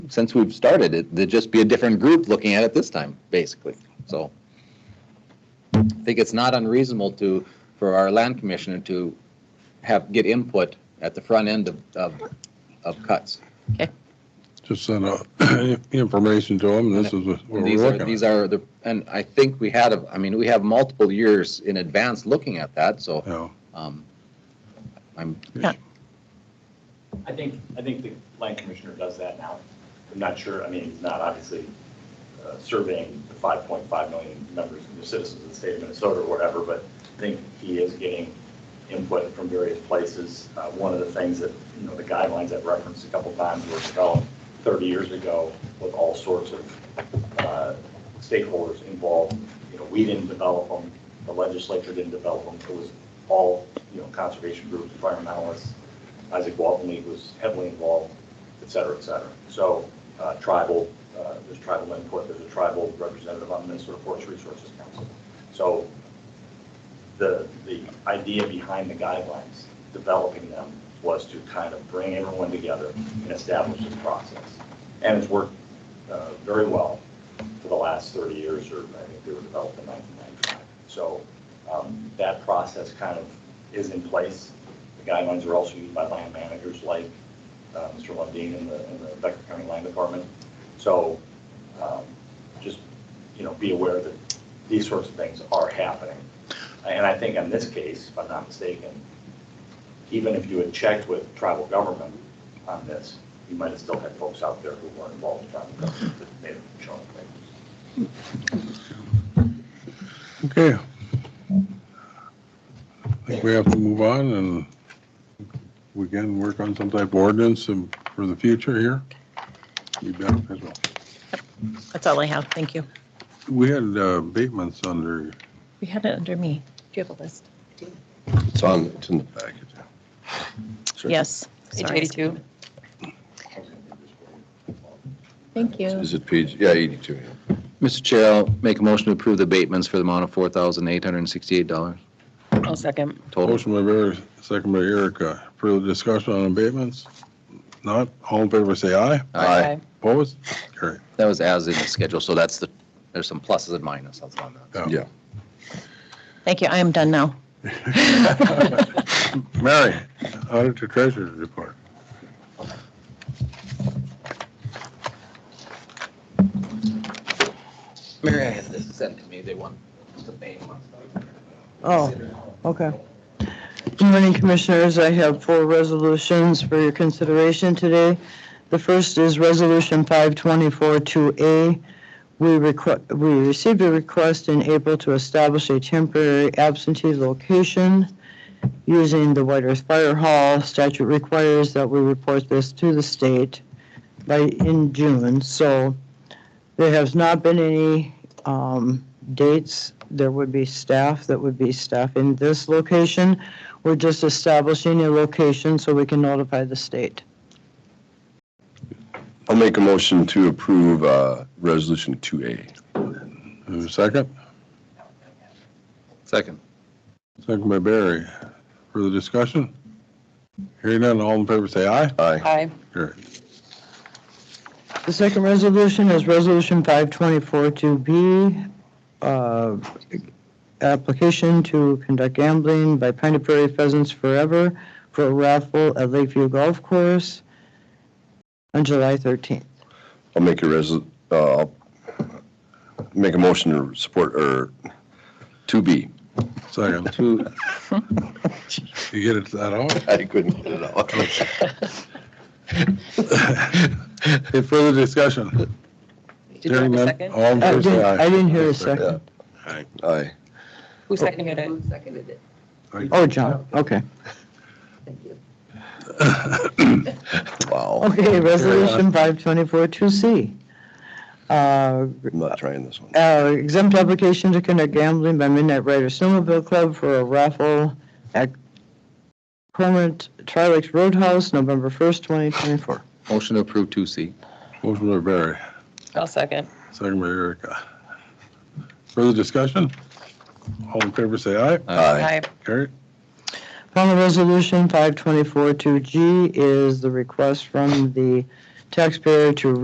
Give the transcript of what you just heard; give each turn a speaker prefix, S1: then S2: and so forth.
S1: since we've started it, there'd just be a different group looking at it this time, basically. So I think it's not unreasonable to, for our land commissioner to have, get input at the front end of, of, of cuts.
S2: Just send out information to them, this is what
S1: And
S2: we're
S1: These are,
S2: looking
S1: these
S2: at.
S1: are the, and I think we had, a- I mean, we have multiple years in advance looking at that, so,
S2: Yeah,
S1: um, I'm,
S3: I think, I think the land commissioner does that now. I'm not sure, I mean, he's not obviously uh, surveying the 5.5 million members, the citizens of the state of Minnesota or whatever, but I think he is getting input from various places. Uh, One of the things that, you know, the guidelines I've referenced a couple times were developed 30 years ago with all sorts of uh, stakeholders involved. You know, we didn't develop them, the legislature didn't develop them, it was all, you know, conservation groups, environmentalists, Isaac Walton League was heavily involved, et cetera, et cetera. So uh, tribal, uh, there's tribal input, there's a tribal representative on the Minnesota Forest Resources Council. So the, the idea behind the guidelines, developing them, was to kind of bring everyone together and establish this process. And it's worked uh, very well for the last 30 years, or I think they were developed in 1995. So um, that process kind of is in place. The guidelines are also used by land managers like uh, Mr. Lundin in the, in the Becker County Land Department. So um, just, you know, be aware that these sorts of things are happening. And I think in this case, if I'm not mistaken, even if you had checked with tribal government on this, you might have still had folks out there who weren't involved in tribal government that may have shown up.
S2: okay. I think we have to move on and we can work on some type of ordinance and for the future here. Be better as well.
S4: That's all I have. Thank you.
S2: We had uh, Bateman's under
S4: We had it under me. Do you have a list?
S5: It's on, it's in the package. Sure.
S4: Yes.
S6: Page
S4: sorry.
S6: 82.
S4: Thank you.
S5: Is it page, yeah, 82, yeah.
S1: Mr. Chair, I'll make a motion to approve the abatements for the amount of $4,868
S6: I'll second.
S1: total.
S2: Motion by Barry, second by Erica. Further discussion on abatements? Not, all in favor, say aye.
S1: Aye.
S2: Opposed? Carry.
S1: That was as in the schedule, so that's the, there's some pluses and minuses on that.
S5: Yeah.
S4: Thank you. I am done now.
S2: Mary, Auditor Treasurer's Report.
S1: Mary has this sent to me, they want the name on
S7: Oh, okay. Good morning, Commissioners. I have four resolutions for your consideration today. The first is Resolution 5242A. We requ- we received a request in April to establish a temporary absentee location using the White Earth Fire Hall. Statute requires that we report this to the state by, in June. So there has not been any um, dates, there would be staff that would be staff in this location. We're just establishing a location so we can notify the state.
S5: I'll make a motion to approve uh, Resolution 2A.
S2: Is there a Second,
S1: Second.
S2: second by Barry. Further discussion? Hearing none, all in favor, say aye.
S5: Aye.
S6: Aye.
S2: Carry.
S7: The second resolution is Resolution 5242B, uh, application to conduct gambling by Pine Prairie Pheasants Forever for a raffle at Lakeview Golf Course on July 13th.
S5: I'll make a res, uh, I'll make a motion to support, or 2B.
S2: Second.
S1: Two,
S2: You get it that out?
S5: I couldn't get it out.
S2: Any further discussion?
S6: Did you have
S2: Hearing
S6: a
S2: none,
S6: second?
S2: All in
S7: I
S2: favor, say
S7: Oh, didn't- I
S2: aye.
S7: didn't hear a second.
S5: Aye.
S6: Who seconded it?
S8: seconded it?
S7: Oh, John, okay.
S8: Thank you.
S5: Wow.
S7: Okay, Resolution 5242C. Uh,
S5: I'm not trying this one.
S7: uh, Exempt application to conduct gambling by Midnight Rider Snowmobile Club for a raffle at Cormorant Tri-Lakes Roadhouse, November 1st, 2024.
S1: motion to approve 2C.
S2: Motion by Barry,
S6: I'll second.
S2: second by Erica. Further discussion? All in favor, say aye.
S5: Aye.
S2: Carry.
S7: Final resolution 5242G is the request from the taxpayer to